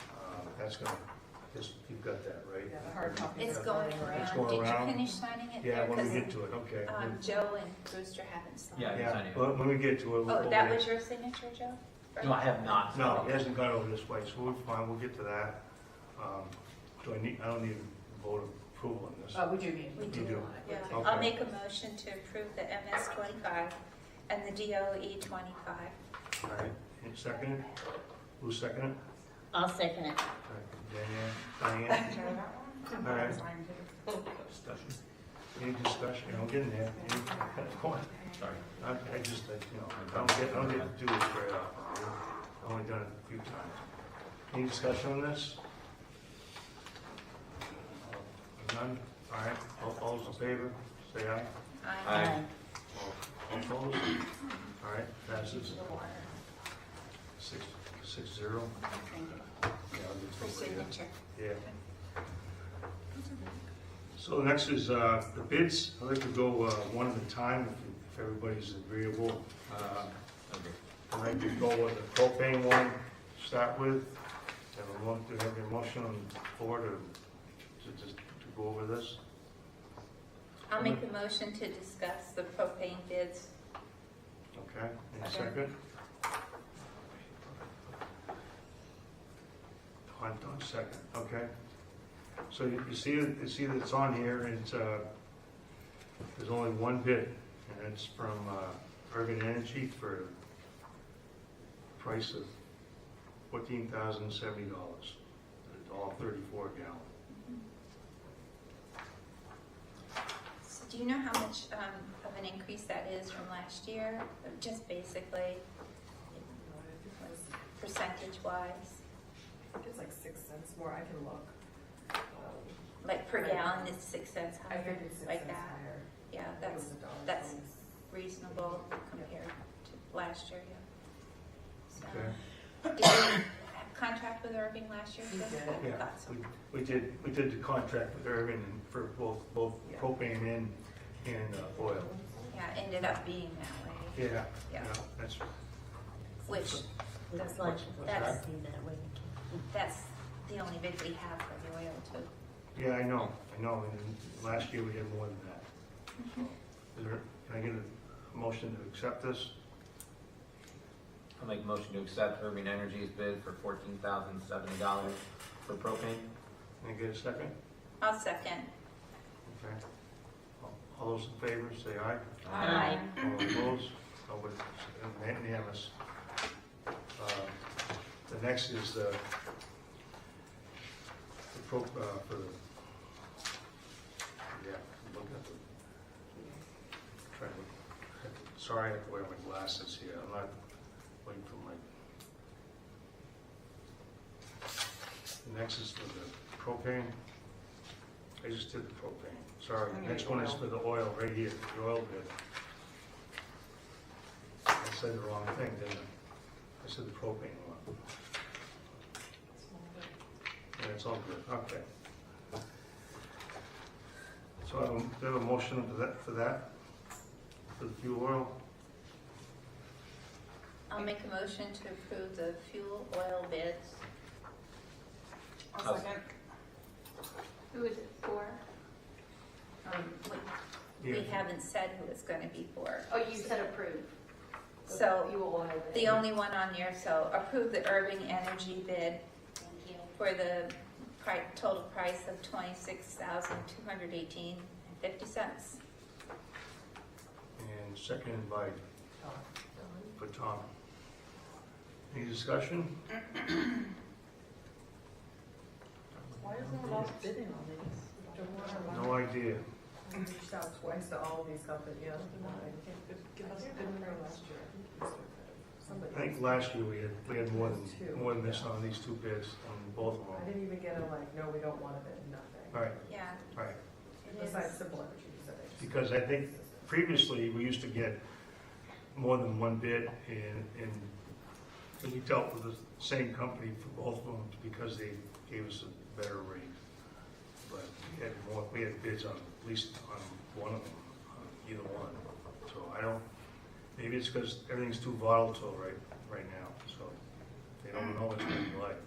Uh, that's gonna, is, you've got that, right? Yeah, the hard copy. It's going around. It's going around. Did you finish signing it? Yeah, there? when we 'Cause, get to it, okay. Um, Joe and Brewster haven't signed. Yeah. I haven't Yeah, signed it yet. well, when we get to it, we'll. Oh, that we'll- was your signature, Joe? Or- No, I have not. No, it hasn't gone over this way, so we're fine, we'll get to that. Um, Do I need, I don't need a vote of approval on this. Uh, we do need. We do. You do. Yeah, Yeah. Okay. I'll make a motion to approve the MS twenty-five and the DOE twenty-five. All right, and second it? Who seconded it? I'll second it. All right, Diane, Diane, all right. Discussion. Any discussion, I'm getting there. Any- Come on. Sorry. I, I just, I, you know, I don't get, I don't get to do this very often. I've only done it a few times. Any discussion on this? Uh, None? All right, all, all those in favor, say aye. I Aye. All opposed? All right, passes. Six, six zero. Yeah, I'll get for over here. signature. Yeah. So next is uh, the bids. I'd like to go uh, one at a time if- if everybody's agreeable. Uh, Okay. I'd like to go with the propane one to start with. Have a mo- do you have a motion on the floor to, to just, to go over this? I'll make a motion to discuss the propane bids. Okay, in a Okay. second. Hunt on second, okay. So you you see, it- you see that it's on here, and it's, uh, there's only one bid, and it's from uh, Urban Energy for a price of fourteen thousand seventy dollars, all thirty-four gallon. So do you know how much um, of an increase that is from last year? Just basically, percentage-wise, I think it's like six cents more, I can look. Um, like per gallon, it's six cents I think higher, it's six like cents that. higher. Yeah, I think it that's was a dollar that's- twenty. reasonable compared to last year, Okay. yeah. So, did you contract with Irving last year? We Chris? did. I Yeah, thought so. we, we did, we did the contract with Urban for both, both Yeah. propane and, and uh, oil. Yeah, it ended up being that way, Yeah, yeah, Yeah. that's, which, Looks like, That's- that's that way. that's the only bid we have for the oil too. yeah, I know, I know, and last year we had more than that. So, Is there, can I get a motion to accept this? I'll make a motion to accept Urban Energy's bid for fourteen thousand seventy dollars for propane. Can I get a second? I'll second. Okay. All- All those in favor, say aye. Aye. All opposed? Nobody, unanimous. Uh, The next is the, the pro, uh, for the, yeah, look at the, trying to, sorry, I have to wear my glasses here, I'm not waiting for my. The next is for the propane. I just did the propane, sorry. The Next one is for the oil, right here, the oil bid. I said the wrong thing, didn't I? I said the propane one. Yeah, it's all good, okay. So I have- do I have a motion for that, for that, for the fuel oil? I'll make a motion to approve the fuel oil bids. I'll second. Who is it for? Um, we, we Yeah. haven't said who it's gonna be for. Oh, you said approve. So- You will oil it. The only one on there, so approve the Irving Energy bid Thank you. for the pri- total price of twenty-six thousand, two hundred eighteen and fifty cents. And seconded by, Oh, for Tom. Any discussion? Why is no one else bidding on these? Don't we have one? No idea. We reached out twice to all of these companies, yeah. Give us a good number last year. Somebody. I think last year we had, we had more than, Two. more than this on these two bids, on both of I them. didn't even get a like, no, we don't want to bid, nothing. All right, Yeah, all right. it is. Besides simple energy usage. Because I think previously, we used to get more than one bid, and, and and we dealt with the same company for both of them because they gave us a better rate. But we had more, we had bids on, at least on one of them, on either one. So I don't, maybe it's because everything's too volatile right, right now, so they don't know what's going to be like.